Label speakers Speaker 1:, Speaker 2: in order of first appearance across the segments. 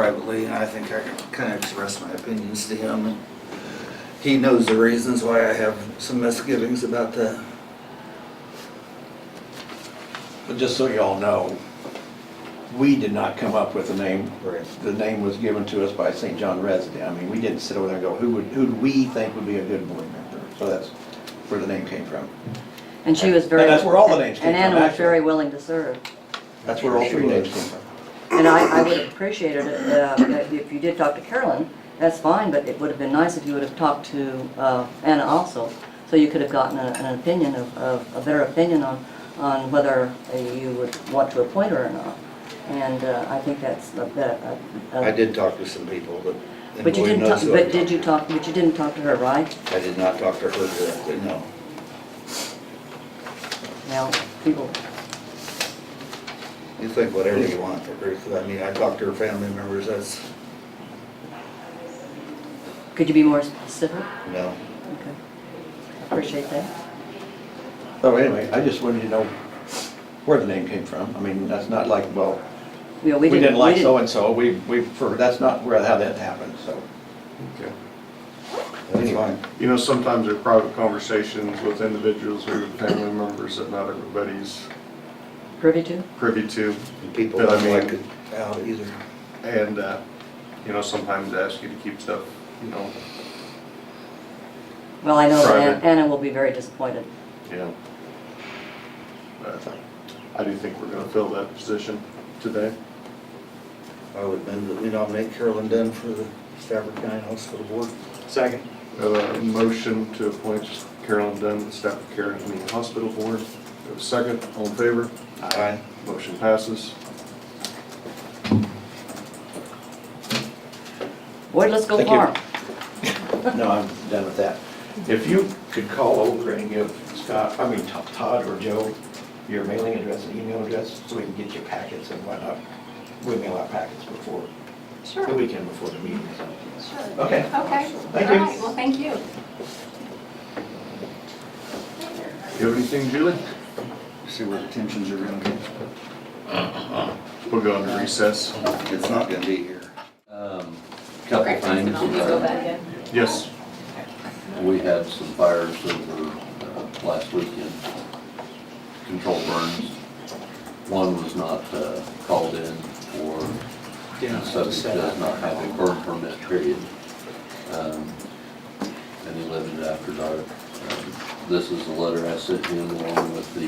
Speaker 1: privately, and I think I kind of expressed my opinions to him. and He knows the reasons why I have some misgivings about that.
Speaker 2: But just so you all know, we did not come up with the name.
Speaker 1: Right.
Speaker 2: The name was given to us by St. John resident. I mean, we didn't sit over there and go, who would, who do we think would be a good board member? So that's where the name came from.
Speaker 3: And she was very.
Speaker 2: And that's where all the names came
Speaker 3: And Anna
Speaker 2: from,
Speaker 3: was
Speaker 2: actually.
Speaker 3: very willing to serve.
Speaker 2: That's where all three names came from.
Speaker 3: And I, I would have appreciated it, uh, if you did talk to Carolyn, that's fine, but it would have been nice if you would have talked to, uh, Anna also. So you could have gotten a- an opinion of, of, a better opinion on, on whether uh, you would want to appoint her or not. And, uh, I think that's a, a- a-
Speaker 1: I did talk to some people, but. and
Speaker 3: But you
Speaker 1: Lloyd
Speaker 3: didn't,
Speaker 1: knows
Speaker 3: talk-
Speaker 1: who I
Speaker 3: but did
Speaker 1: talked
Speaker 3: you talk, but you didn't talk to her, right?
Speaker 1: to. I did not talk to her directly, no.
Speaker 3: Now, people,
Speaker 1: You think whatever you want for Ruth, I mean, I talked to her family members, that's,
Speaker 3: could you be more specific?
Speaker 1: no.
Speaker 3: Okay. Appreciate that.
Speaker 2: So anyway, I just wanted you to know where the name came from. I mean, that's not like, well,
Speaker 3: You know,
Speaker 2: we didn't like
Speaker 3: we
Speaker 2: so-and-so, we, we, for- that's not where, how that happened, so.
Speaker 4: Okay.
Speaker 1: That's fine.
Speaker 4: You know, sometimes there are private conversations with individuals or family members that not everybody's
Speaker 3: Privy to?
Speaker 4: privy to.
Speaker 1: And people
Speaker 4: But I
Speaker 1: don't like
Speaker 4: mean-
Speaker 1: it out either.
Speaker 4: And, uh, you know, sometimes ask you to keep stuff, you know,
Speaker 3: Well, I know that An-
Speaker 4: Private.
Speaker 3: Anna will be very disappointed.
Speaker 4: yeah. But I do think we're gonna fill that position today.
Speaker 1: I would move that we nominate Carolyn Dunn for the Stafford County Hospital Board.
Speaker 2: Second.
Speaker 4: We have a Uh, motion to appoint Carolyn Dunn, to the staff of care in the hospital board. We have a second, all in favor?
Speaker 1: Aye.
Speaker 4: Motion passes.
Speaker 3: Boy, let's go
Speaker 2: Thank you.
Speaker 3: far.
Speaker 2: No, I'm done with that. If you could call over and give Scott, I mean Todd- Todd or Joe, your mailing address and email address, so we can get your packets and whatnot. We mail out packets before,
Speaker 5: Sure,
Speaker 2: the
Speaker 5: sure.
Speaker 2: weekend before the meeting. so.
Speaker 5: Okay.
Speaker 2: Okay. Thank
Speaker 5: All
Speaker 2: you.
Speaker 5: right, well, thank you.
Speaker 4: You have anything, Julie?
Speaker 1: See where the tensions are gonna be.
Speaker 4: We'll go into recess.
Speaker 1: It's not gonna be here.
Speaker 6: Um, Couple
Speaker 5: Okay,
Speaker 6: things. Uh,
Speaker 5: I'll just go back in.
Speaker 4: Yes.
Speaker 6: We had some fires over uh, last weekend, controlled burns. One was not uh, called in for, the subject does not have a burn permit period. Um, And he lived it after dark. Um, This is the letter I sent him along with the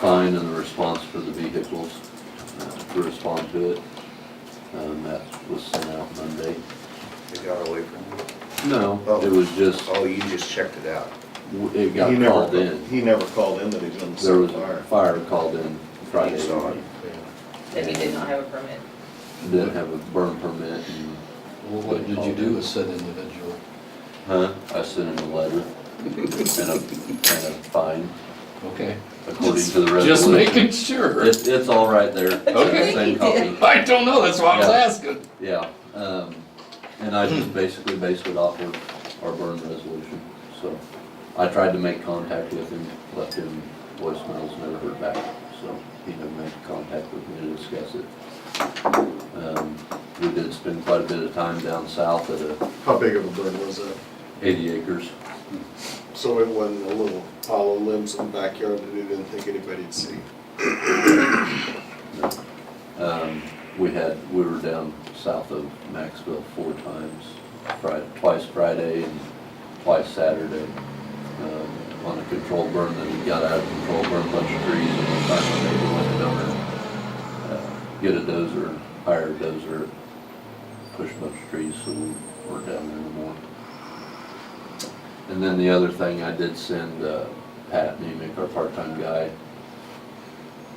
Speaker 6: fine and the response for the vehicles uh, to respond to it. Um, That was sent out Monday.
Speaker 1: It got away from me.
Speaker 6: No,
Speaker 1: Oh.
Speaker 6: it was just,
Speaker 1: Oh, you just checked it out.
Speaker 6: it got
Speaker 7: He never
Speaker 6: called
Speaker 7: ca-
Speaker 6: in.
Speaker 7: He never called in that he was in the
Speaker 6: There
Speaker 7: civil
Speaker 6: was
Speaker 7: fire.
Speaker 6: a fire called in Friday.
Speaker 1: You saw it.
Speaker 8: that he did not have a permit.
Speaker 6: Didn't have a burn permit and,
Speaker 9: Well, what did you do with said individual?
Speaker 6: huh, I sent him a letter and a, and a fine
Speaker 9: Okay.
Speaker 6: according to the
Speaker 9: Just
Speaker 6: resolution.
Speaker 9: making sure.
Speaker 6: It's, it's all right there. It's in the
Speaker 9: Okay.
Speaker 6: Same copy.
Speaker 9: I don't know, that's why I was
Speaker 6: Yeah.
Speaker 9: asking.
Speaker 6: Yeah, um, and I just basically based it off of our burn resolution, so. I tried to make contact with him, left him voicemails, never heard back, so he never made contact with me to discuss it. Um, we did spend quite a bit of time down south at uh,
Speaker 7: How big of a burn was that?
Speaker 6: eighty acres.
Speaker 7: So it wasn't a little pile of limbs in the backyard that he didn't think anybody'd see.
Speaker 6: Um, we had, we were down south of Maxville four times, Friday, twice Friday and twice Saturday. um, On a control burn that we got out of control, burned a bunch of trees and we finally made the window down there. uh, Get a dozer, hire a dozer, push a bunch of trees so we weren't down there anymore. And then the other thing, I did send uh, Pat Nemick, our part-time guy,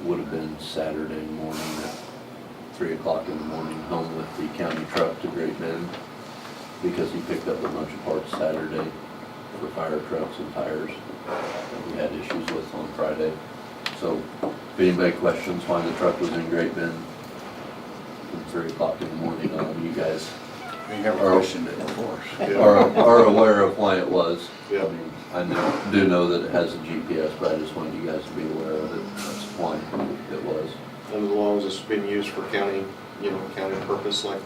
Speaker 6: would have been Saturday morning at three o'clock in the morning home with the county truck to Great Bend because he picked up a bunch of parts Saturday for fire trucks and tires that we had issues with on Friday. So if anybody questions why the truck was in Great Bend from three o'clock in the morning on, you guys
Speaker 7: He never
Speaker 6: Or-
Speaker 7: questioned it before.
Speaker 6: are, are aware of why it was.
Speaker 7: Yeah.
Speaker 6: I mean, I know, do know that it has a GPS, but I just wanted you guys to be aware of it, that's why it was.
Speaker 7: And as long as it's been used for county
Speaker 4: you know, county purpose like that.